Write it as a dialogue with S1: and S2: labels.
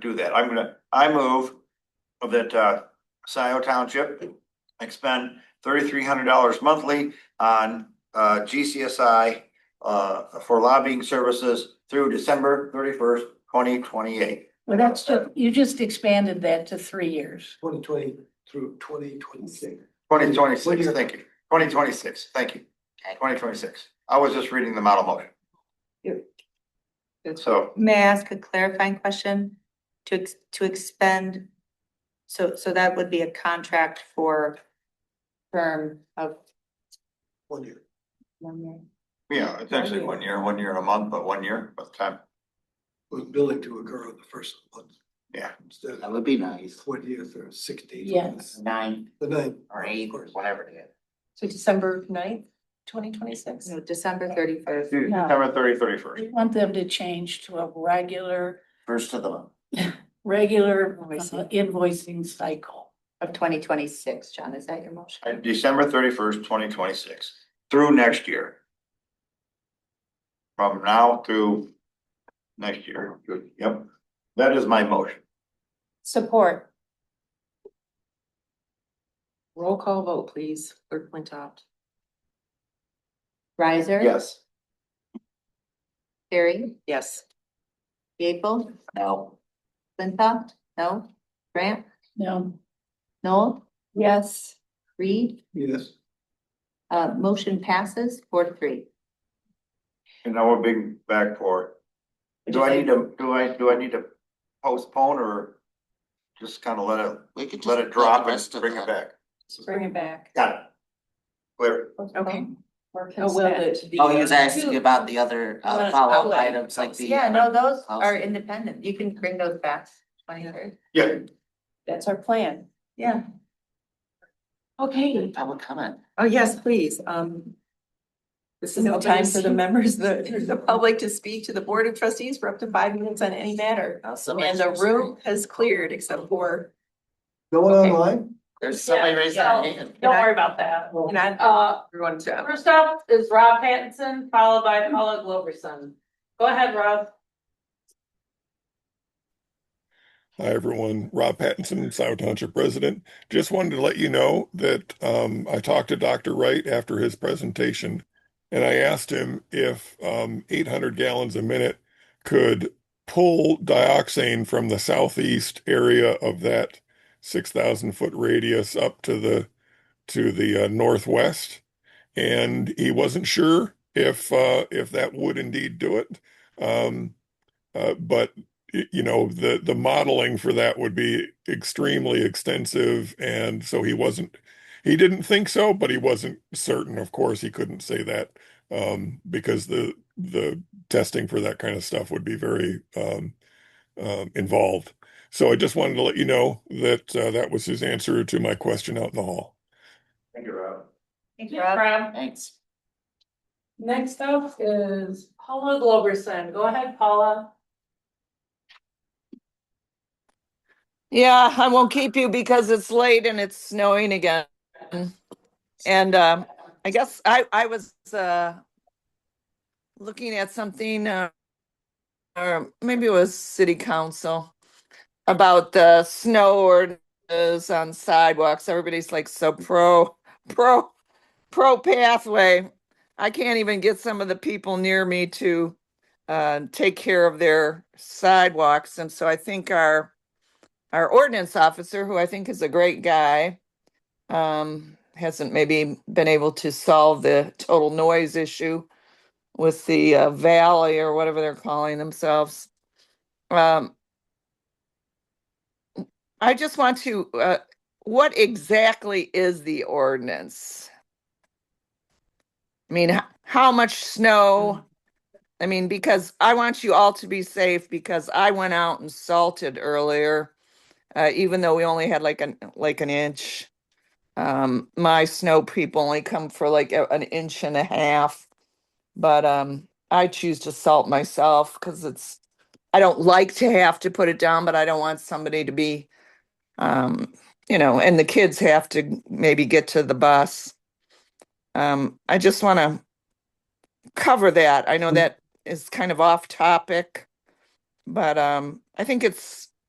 S1: do that. I'm gonna, I move that, uh, Scioto Township expend thirty-three hundred dollars monthly on, uh, GCSI, uh, for lobbying services through December thirty-first, twenty twenty-eight.
S2: Well, that's just, you just expanded that to three years.
S3: twenty twenty through twenty twenty-six.
S1: Twenty twenty-six, thank you. Twenty twenty-six, thank you. Twenty twenty-six. I was just reading the model motion. So,
S4: May I ask a clarifying question? To, ex- to expend, so, so that would be a contract for term of
S3: One year.
S4: one year?
S1: yeah, it's actually one year, one year and a month, but one year by the time.
S3: Was billing to occur on the first month.
S1: Yeah.
S3: Instead of
S5: That would be nice.
S3: twentieth or sixteenth.
S2: Yes.
S5: Nine
S3: The ninth.
S5: or eight, or whatever it is.
S6: So December ninth, twenty twenty-six?
S4: No, December thirty-first.
S1: December thirty, thirty-first.
S2: We want them to change to a regular,
S5: First of the month.
S2: regular
S6: Oh,
S2: uh,
S4: Invoicing.
S2: invoicing cycle.
S4: Of twenty twenty-six, John, is that your
S1: And
S4: motion?
S1: December thirty-first, twenty twenty-six, through next year. From now through next year, Good. yep, that is my motion.
S6: Support. Roll call vote, please. Clerk Flintoff.
S4: Riser?
S1: Yes.
S4: Carrie?
S6: Yes.
S4: Gable?
S5: No,
S4: Flintoff? No? Grant?
S2: No,
S4: Noel?
S6: Yes.
S4: Reed?
S3: Yes.
S4: Uh, motion passes four to three.
S1: And now we're being back for, do I need to, do I, do I need to postpone or just kind of let it,
S5: we could just.
S1: let it drop and bring it back?
S6: Bring it back.
S1: Got it. Clear,
S6: Okay.
S4: Oh, will it?
S5: Oh, he was asking about the other uh
S6: Let's
S5: follow-up
S6: outline
S5: items like the.
S4: Yeah, no, those are
S5: Awesome.
S4: independent. You can bring those back twenty-third.
S1: yeah,
S6: That's our plan. Yeah.
S5: uh,
S6: Okay.
S5: Public comment.
S6: Oh, yes, please. Um. This is no time for the members, the, the public to speak to the Board of Trustees for up to five minutes on any matter.
S5: Now, somebody
S6: And the
S5: raised their
S6: room has cleared except for,
S3: No one online?
S5: hand. There's somebody raised their
S7: Yeah.
S5: hand.
S7: Don't worry about that.
S6: and I,
S7: Uh,
S6: everyone, to-
S7: first up is Rob Pattinson, followed by Paula Gloverson. Go ahead, Rob.
S8: Hi, everyone. Rob Pattinson, Scioto Township resident. Just wanted to let you know that um, I talked to Dr. Wright after his presentation, and I asked him if um, 800 gallons a minute could pull dioxane from the southeast area of that 6,000 foot radius up to the to the uh, northwest, and he wasn't sure if uh, if that would indeed do it. Um, uh, but y- you know the the modeling for that would be extremely extensive and so he wasn't he didn't think so but he wasn't certain of course he couldn't say that um because the the testing for that kind of stuff would be very um, um involved so i just wanted to let you know that uh, that was his answer to my question out in the hall
S1: thank you, Rob.
S4: Thanks,
S7: Yes,
S4: Rob.
S7: Rob.
S5: Thanks.
S7: Next up is Paula Gloverson. Go ahead, Paula.
S9: Yeah, I won't keep you because it's late and it's snowing again. And um, I guess I, I was uh, looking at something, uh, or maybe it was city council about the snow ordinance on sidewalks. Everybody's like so pro, pro, pro pathway. I can't even get some of the people near me to uh, take care of their sidewalks. And so I think our our ordinance officer, who I think is a great guy, um, hasn't maybe been able to solve the total noise issue with the uh, valley or whatever they're calling themselves. Um, I just want to, uh, what exactly is the ordinance? I mean, h- how much snow? I mean, because I want you all to be safe because I went out and salted earlier uh, even though we only had like an like an inch. Um, my snow people only come for like a- an inch and a half, but um, I choose to salt myself because it's I don't like to have to put it down, but I don't want somebody to be, um, you know, and the kids have to maybe get to the bus. Um, I just want to cover that. I know that is kind of off topic, but um, I think it's